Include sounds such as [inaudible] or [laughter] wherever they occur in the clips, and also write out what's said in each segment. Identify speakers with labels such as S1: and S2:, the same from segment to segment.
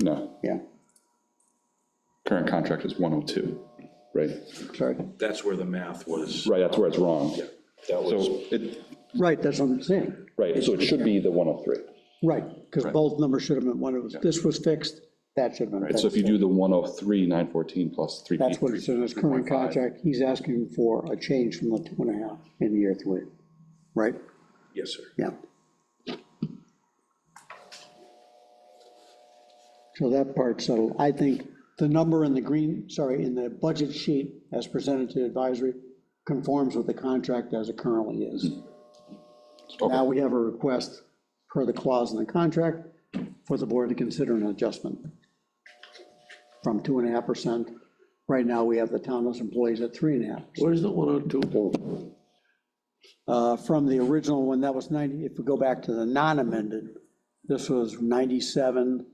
S1: No,
S2: Yeah,
S1: current contract is 102, right?
S2: sorry.
S3: That's where the math was.
S1: Right, that's where it's wrong.
S3: That was,
S1: So it,
S2: Right, that's what I'm saying.
S1: right, so it should be the 103.
S2: Right, because both numbers should have been, one was, this was fixed, that should have been
S1: Right,
S2: fixed.
S1: so if you do the 103, 914 plus 3.
S2: That's what it says in his current
S1: 3.5.
S2: contract. He's asking for a change from the two and a half in year three, right?
S3: yes, sir.
S2: Yeah. So that part's settled. I think the number in the green, sorry, in the budget sheet as presented to advisory conforms with the contract as it currently is.
S1: Okay.
S2: Now we have a request per the clause in the contract for the board to consider an adjustment from 2.5%. Right now, we have the townless employees at 3.5%.
S4: Where's the 102?
S2: Uh, from the original one, that was 90, if we go back to the non-amended, this was 97,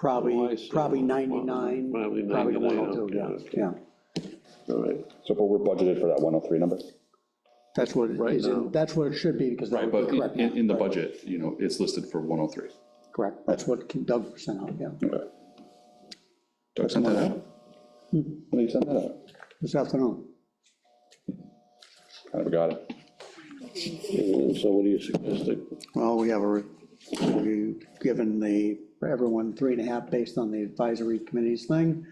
S4: Oh, I
S2: probably,
S4: see.
S2: probably 99.
S4: Probably 99,
S2: 102, yeah,
S4: okay.
S2: oh yeah.
S4: All right,
S1: So, but we're budgeted for that 103 number?
S2: That's what, it
S4: Right
S2: is in-
S4: now.
S2: that's what it should be, because that
S1: Right,
S2: would
S1: but
S2: be correct.
S1: in, in-
S2: now.
S1: in the budget, you know, it's listed for 103.
S2: Correct, that's what Doug sent out, yeah,
S1: Okay. Doug sent that out? When did you send that out?
S2: this afternoon.
S1: Kind of forgot it.
S4: Uh, so what do you suggest?
S2: Well, we have a, re- we've given the, for everyone, three and a half based on the advisory committee's thing.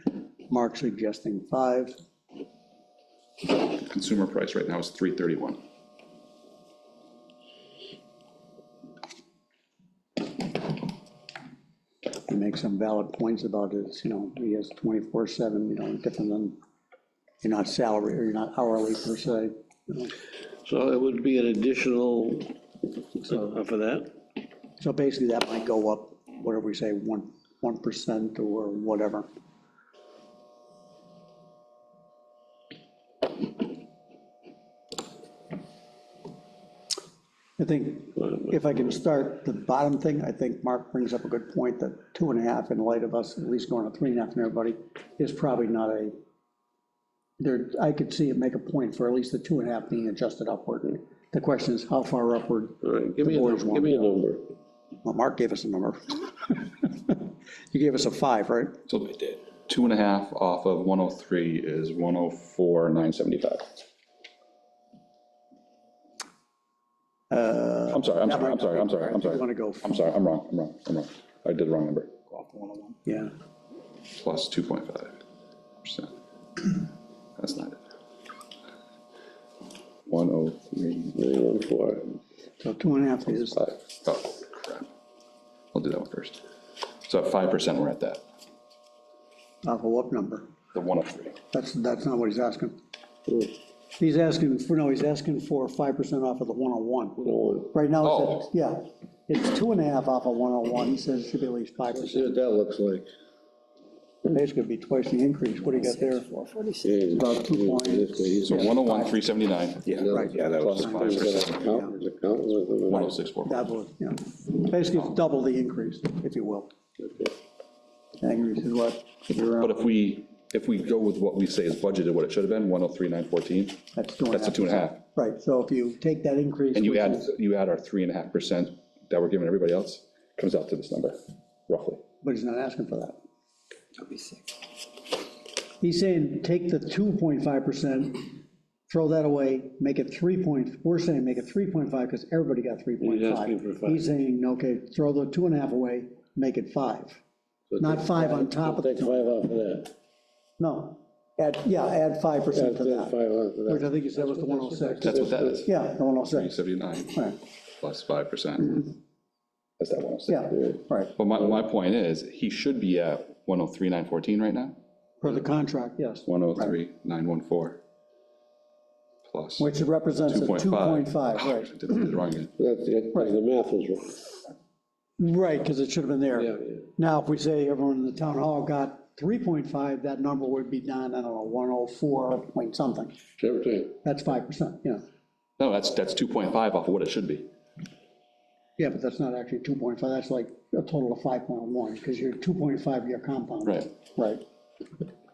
S2: Mark suggesting five,
S1: Consumer price right now is 331.
S2: he makes some valid points about his, you know, he has twenty-four seven, you know, different than, you're not salary, or you're not hourly per se. you know.
S4: So it would be an additional uh, for that?
S2: So basically, that might go up, whatever we say, one, one percent or whatever. I think, if I can start the bottom thing, I think Mark brings up a good point, that two and a half in light of us at least going to three and a half and everybody is probably not a, there, I could see it make a point for at least the two and a half being adjusted upward. The question is, how far upward
S4: All right, give me
S2: The
S4: a,
S2: boys
S4: num-
S2: want-
S4: give me a number.
S2: well, Mark gave us a number. [laughs] You gave us a five, right?
S1: So two and a half off of 103 is 104, 975. I'm sorry, I'm sorry, I'm sorry, I'm sorry, I'm sorry.
S2: You wanna go-
S1: I'm sorry, I'm wrong, I'm wrong, I'm wrong. I did the wrong number.
S2: Yeah.
S1: Plus 2.5%. That's not it. 103,
S4: Nine one four.
S2: So two and a half is,
S1: five. Oh, crap. I'll do that one first. So at 5%, we're at that,
S2: off of what number?
S1: the 103.
S2: That's, that's not what he's asking. He's asking, for no, he's asking for five percent off of the one oh one.
S4: No
S2: Right now, it's,
S1: Oh.
S2: at- yeah, it's two and a half off of one oh one, he says it should be at least five
S4: one.
S2: percent.
S4: See what that looks like.
S2: Basically, it'd be twice the increase, what do you got there? About two points.
S1: So 101, 379. Yeah.
S2: Right.
S3: Yeah, that was
S1: Plus 5%. One oh six four.
S2: That was, yeah, basically, it's double the increase, if you will. Increase is what, if you're,
S1: But
S2: uh,
S1: if we, if we go with what we say is budgeted, what it should have been, 103,914,
S2: that's two and a half.
S1: that's a two and a half.
S2: Right, so if you take that increase.
S1: And you
S2: which
S1: add,
S2: is-
S1: you add our three and a half percent that we're giving everybody else, comes out to this number, roughly.
S2: But he's not asking for that. He's saying, take the 2.5%, throw that away, make it 3 point, we're saying make it 3.5 because everybody got
S4: asking for
S2: 3.5.
S4: five.
S2: He's saying, okay, throw the two and a half away, make it 5. Not 5 on top of,
S4: Take five off of that.
S2: no, add, yeah, add 5%
S4: Add
S2: to that,
S4: five off of
S2: which
S4: that.
S2: I think you said was the 106.
S1: That's what that is,
S2: Yeah, the 106,
S1: 379
S2: right,
S1: plus 5%. That's that 106.
S2: yeah, right,
S1: But my, my point is, he should be at 103,914 right now,
S2: for the contract, yes,
S1: 103,914 plus
S2: which represents a
S1: 2.5.
S2: 2.5,
S1: Oh,
S2: right.
S1: I Did it wrong again.
S4: That's, that- the math was wrong.
S2: Right, because it should have been there.
S4: Yeah, yeah.
S2: Now, if we say everyone in the town hall got 3.5, that number would be down, I don't know, 104 point something.
S4: Sure thing.
S2: That's 5%, you know.
S1: No, that's, that's 2.5 off of what it should be.
S2: Yeah, but that's not actually 2.5, that's like a total of 5.1, because you're 2.5 year compound.
S1: Right.
S2: Right.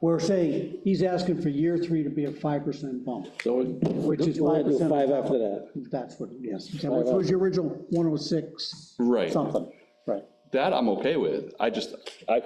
S2: We're saying, he's asking for year three to be a 5% bump.
S4: So we-
S2: Which is
S4: you wanna do
S2: 5%
S4: Five after that.
S2: That's what, yes, which was your original 106
S1: Right.
S2: something, right.
S1: That I'm okay with. I just, I